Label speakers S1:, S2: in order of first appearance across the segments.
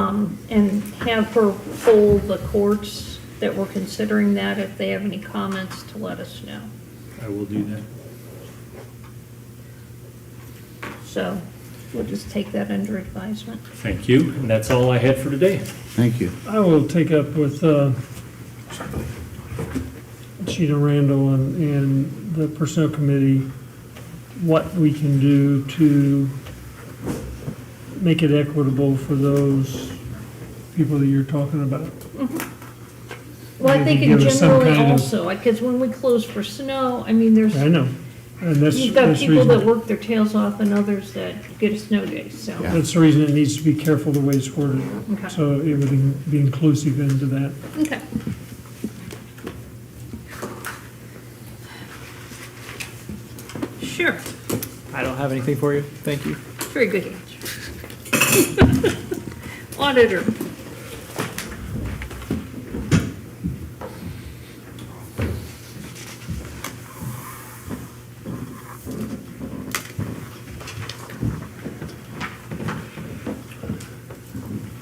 S1: um, and have her poll the courts that were considering that, if they have any comments, to let us know.
S2: I will do that.
S1: So we'll just take that under advisement.
S2: Thank you, and that's all I had for today.
S3: Thank you.
S4: I will take up with uh, Sheena Randall and, and the Personnel Committee, what we can do to make it equitable for those people that you're talking about.
S1: Well, I
S4: Maybe
S1: think in
S4: give us some
S1: generally
S4: kind of-
S1: also, because when we close for snow, I mean, there's,
S4: I know, and that's,
S1: you've got
S4: that's the
S1: people that
S4: reason,
S1: work their tails off and others that get a snow day, so.
S4: that's the reason it needs to be careful the way it's worded.
S1: Okay.
S4: So it would in- be inclusive into that.
S1: Okay. Sure,
S5: I don't have anything for you. Thank you.
S1: very good answer. Auditor,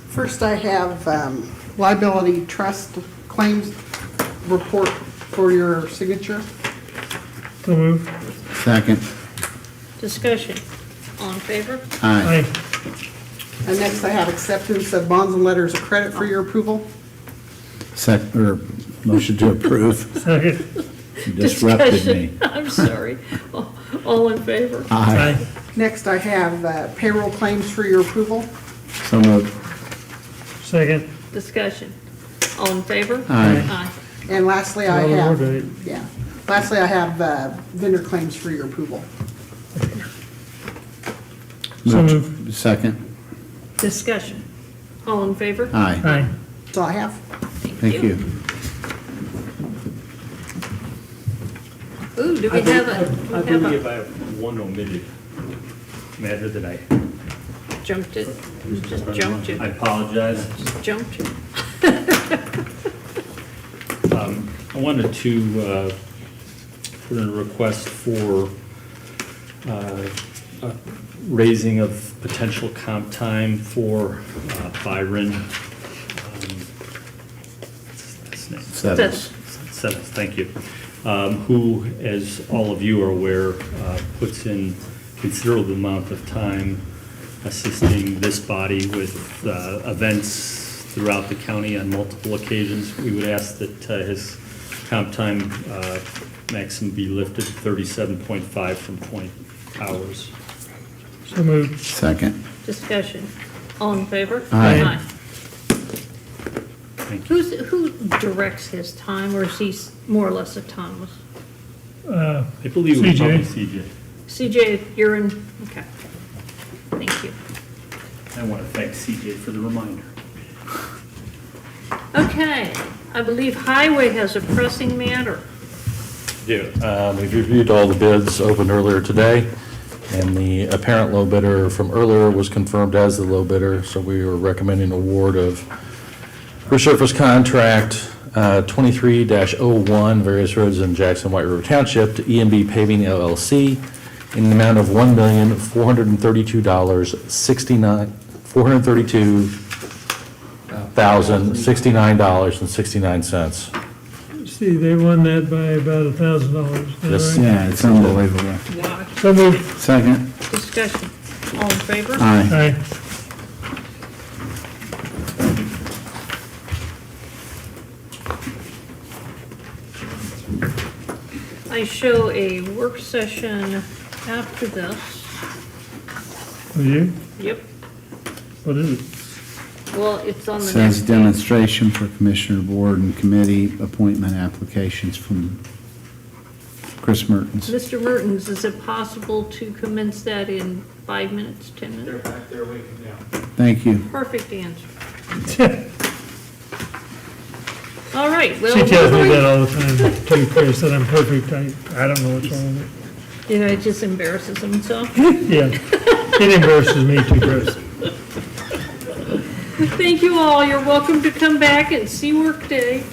S6: First, I have um, liability trust claims report for your signature.
S4: So move.
S3: Second.
S1: discussion, all in favor?
S3: Aye.
S4: Aye.
S6: And next, I have acceptance of bonds and letters of credit for your approval.
S3: Sec, or motion to approve.
S4: Second.
S3: You Disrupted me. Uh.
S1: Discussion. I'm sorry, All- all in favor?
S3: Aye.
S4: Aye.
S6: Next, I have uh, payroll claims for your approval.
S3: So moved.
S4: Second.
S1: Discussion, all in favor?
S3: Aye.
S1: Aye.
S6: And lastly, I
S4: Well, we're
S6: have,
S4: good.
S6: yeah, lastly, I have uh, vendor claims for your approval.
S4: So
S3: Moved.
S4: moved.
S3: Second.
S1: Discussion, all in favor?
S3: Aye.
S4: Aye.
S6: That's all I have.
S3: Uh, Thank you.
S1: Ooh, do we have a,
S2: I
S1: we have
S2: believe
S1: a,
S2: I have one omitted matter that I
S1: jumped it, You just jumped
S2: I
S1: it,
S2: apologize.
S1: just jumped it.
S2: I wanted to uh, put in a request for uh, a raising of potential comp time for uh, Byron. um, What's his name?
S3: Settles.
S2: Settles, thank you. Um, Who, as all of you are aware, uh, puts in considerable amount of time assisting this body with uh, events throughout the county on multiple occasions. We would ask that uh, his comp time uh, maximum be lifted to 37.5 from 20 hours.
S4: So moved.
S3: Second.
S1: Discussion. All in favor?
S3: Aye.
S2: Thank you.
S1: Who's, who directs his time, or is he s- more or less autonomous?
S4: Uh,
S2: I believe it was
S4: CJ.
S2: probably CJ.
S1: CJ, you're in, okay. Thank you.
S2: I want to thank CJ for the reminder.
S1: Okay, I believe Highway has a pressing matter.
S7: do. Um, We've reviewed all the bids opened earlier today, and the apparent low bidder from earlier was confirmed as the low bidder, so we are recommending award of resurface contract uh, 23-01, various roads in Jackson White River Township, to EMB Paving LLC, in an amount of $1,432,69, 432,069.69.
S4: See, they won that by about a thousand dollars.
S7: Yes.
S3: Yeah, it's unbelievable.
S1: Wow.
S4: So moved.
S3: Second.
S1: Discussion. All in favor?
S3: Aye.
S4: Aye.
S1: I show a work session after this.
S4: Will you?
S1: Yep.
S4: What is it?
S1: Well, it's on the next
S3: Says
S1: page.
S3: demonstration for Commissioner Board and Committee appointment applications from Chris Mertens.
S1: Mr. Mertens, is it possible to commence that in five minutes, 10 minutes?
S3: Thank you.
S1: Perfect answer. All right, well,
S4: She tells me
S1: we're
S4: that
S1: going-
S4: all the time, too, Chris, that I'm perfect. I, I don't know what's wrong with
S1: you know, it just embarrasses himself.
S4: it. Yeah. It embarrasses me too, Chris.
S1: Thank you all, you're welcome to come back and see workday.